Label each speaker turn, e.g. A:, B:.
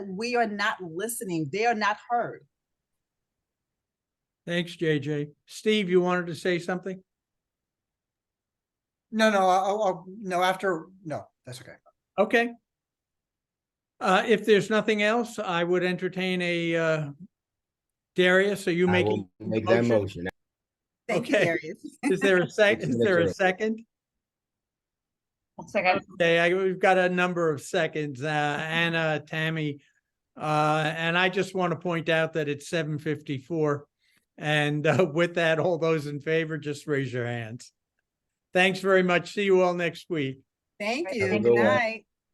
A: we are not listening. They are not heard.
B: Thanks, JJ. Steve, you wanted to say something?
C: No, no, I'll, I'll, no, after, no, that's okay.
B: Okay. Uh, if there's nothing else, I would entertain a, uh, Darius, are you
D: I
B: making?
D: will Make that
B: motion?
D: motion.
A: Thank you,
B: Okay.
A: Darius.
B: Is there a sec, is there a
D: Second.
B: second?
E: Second.
B: Okay, I, we've got a number of seconds, uh, Anna, Tammy. Uh, and I just want to point out that it's seven fifty-four. And uh, with that, all those in favor, just raise your hands. Thanks very much. See you all next week.
A: Thank
E: Thank
A: you.
E: you.
A: Good night.